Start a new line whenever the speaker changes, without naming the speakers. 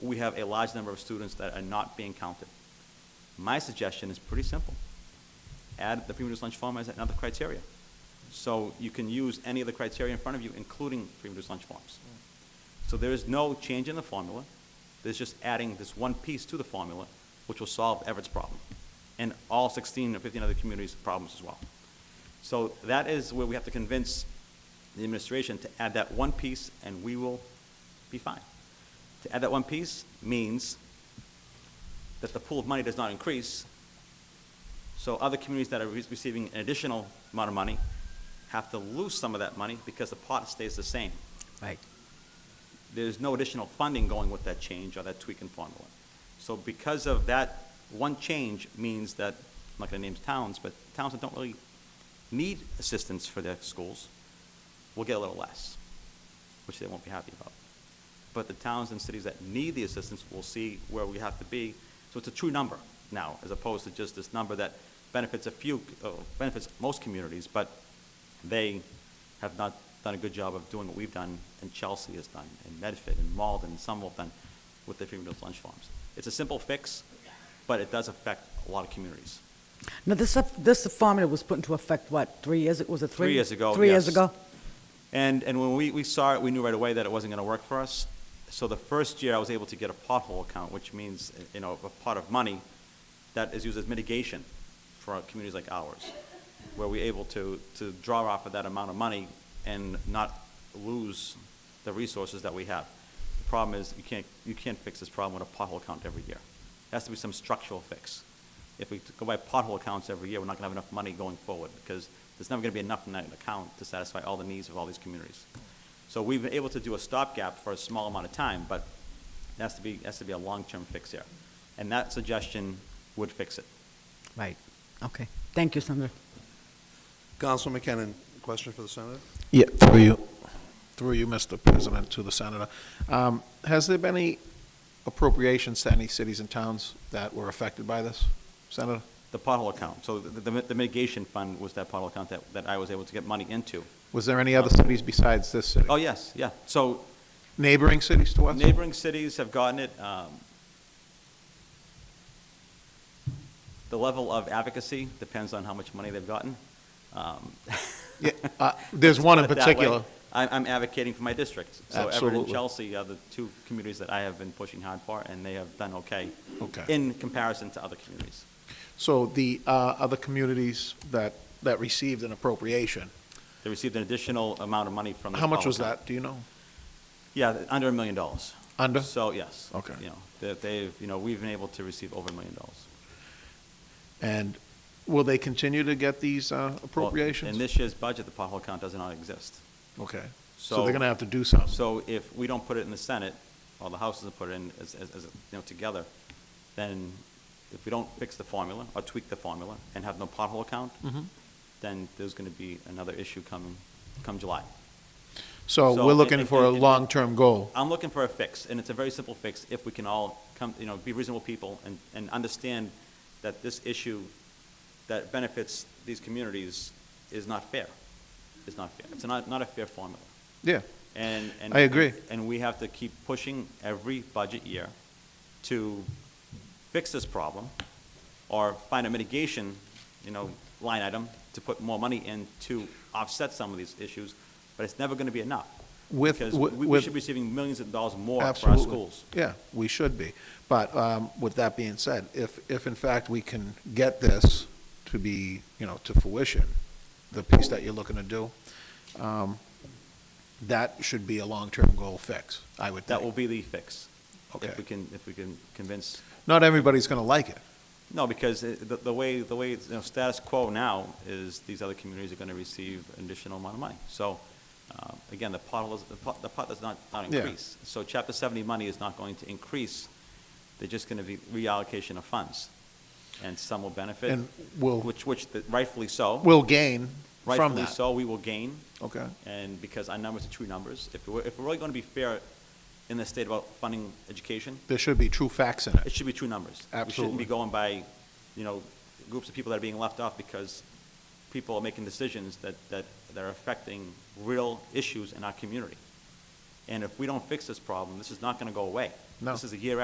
we have a large number of students that are not being counted. My suggestion is pretty simple. Add the pre-reduced lunch form as another criteria. So you can use any of the criteria in front of you, including pre-reduced lunch forms. So there is no change in the formula. There's just adding this one piece to the formula, which will solve Everett's problem and all 16 or 15 other communities' problems as well. So that is where we have to convince the administration to add that one piece, and we will be fine. To add that one piece means that the pool of money does not increase, so other communities that are re- receiving an additional amount of money have to lose some of that money because the pot stays the same.
Right.
There's no additional funding going with that change or that tweak in formula. So because of that, one change means that, I'm not going to name towns, but towns that don't really need assistance for their schools will get a little less, which they won't be happy about. But the towns and cities that need the assistance will see where we have to be. So it's a true number now, as opposed to just this number that benefits a few, uh, benefits most communities, but they have not done a good job of doing what we've done, and Chelsea has done, and Medford, and Malden, and Somerville have done with their free reduced lunch farms. It's a simple fix, but it does affect a lot of communities.
Now, this, this formula was put into effect, what, three years, ago? was it three?
Three years ago,
Three years
yes.
ago?
And, and when we, we saw it, we knew right away that it wasn't gonna work for us. So the first year, I was able to get a pothole account, which means, you know, a pot of money that is used as mitigation for our communities like ours, where we're able to, to draw off of that amount of money and not lose the resources that we have. The problem is, you can't, you can't fix this problem with a pothole account every year. There has to be some structural fix. If we go by pothole accounts every year, we're not gonna have enough money going forward, because there's never gonna be enough in that account to satisfy all the needs of all these communities. So we've been able to do a stopgap for a small amount of time, but there has to be, has to be a long-term fix here. And that suggestion would fix it.
Right, okay. Thank you, Senator.
Councilman McKinnon, question for the senator?
Yeah, through you, through you, Mr. President, to the senator. Um, Has there been any appropriations to any cities and towns that were affected by this, Senator?
The pothole account, so the, the the mitigation fund was that pothole account that, that I was able to get money into.
Was there any other cities besides this city?
Uh, Oh, yes, yeah, so
Neighboring cities to us?
neighboring cities have gotten it. um, The level of advocacy depends on how much money they've gotten. Um,
Yeah, uh, There's one in
put it that way.
particular.
I'm, I'm advocating for my district. So Everett and
Absolutely.
Chelsea are the two communities that I have been pushing hard for, and they have done okay.
Okay.
In comparison to other communities.
So the uh, other communities that, that received an appropriation,
They received an additional amount of money from the.
how much
Apollo
was
Company.
that, do you know?
Yeah, th- under a million dollars.
Under?
So, yes.
Okay.
You know, that they've, you know, we've been able to receive over a million dollars.
And will they continue to get these uh,
Well,
appropriations?
In this year's budget, the pothole account does not exist.
Okay,
So-
so they're gonna have to do something.
So if we don't put it in the Senate, or the House doesn't put it in as, as, as, you know, together, then if we don't fix the formula or tweak the formula and have no pothole account, then there's gonna be another issue come, come July.
So
So
we're
it-
looking
it-
for a
it- it-
long-term goal.
I'm looking for a fix, and it's a very simple fix if we can all come, you know, be reasonable people and, and understand that this issue that benefits these communities is not fair. It's not fair. It's not, not a fair formula.
Yeah.
And, and.
I agree.
And we have to keep pushing every budget year to fix this problem or find a mitigation, you know, line item to put more money in to offset some of these issues, but it's never gonna be enough.
With-
Because
with-
we, we
with-
should be receiving millions of dollars more for our
Absolutely.
schools.
Yeah, we should be. But um, with that being said, if, if in fact we can get this to be, you know, to fruition, the piece that you're looking to do, um, that should be a long-term goal fix, I would
That will
think.
be the fix.
Okay.
If we can, if we can convince,
Not everybody's going to like it.
no, because it- the, the way, the way, you know, status quo now is these other communities are gonna receive an additional amount of money. So, uh, again, the pot, is- the pot, the pot does not, not
Yeah.
increase. So chapter seventy money is not going to increase, they're just gonna be reallocation of funds. And some will benefit,
And we'll,
which, which the- rightfully so.
we'll gain from
Rightfully
that.
so, we will gain.
Okay.
And because our numbers are true numbers, if we're, if we're really gonna be fair in this state about funding education,
There should be true facts in
it
it.
should be true numbers. We shouldn't
Absolutely.
be going by, you know, groups of people that are being left off because people are making decisions that, that, that are affecting real issues in our community. And if we don't fix this problem, this is not going to go away.
No.
This is a year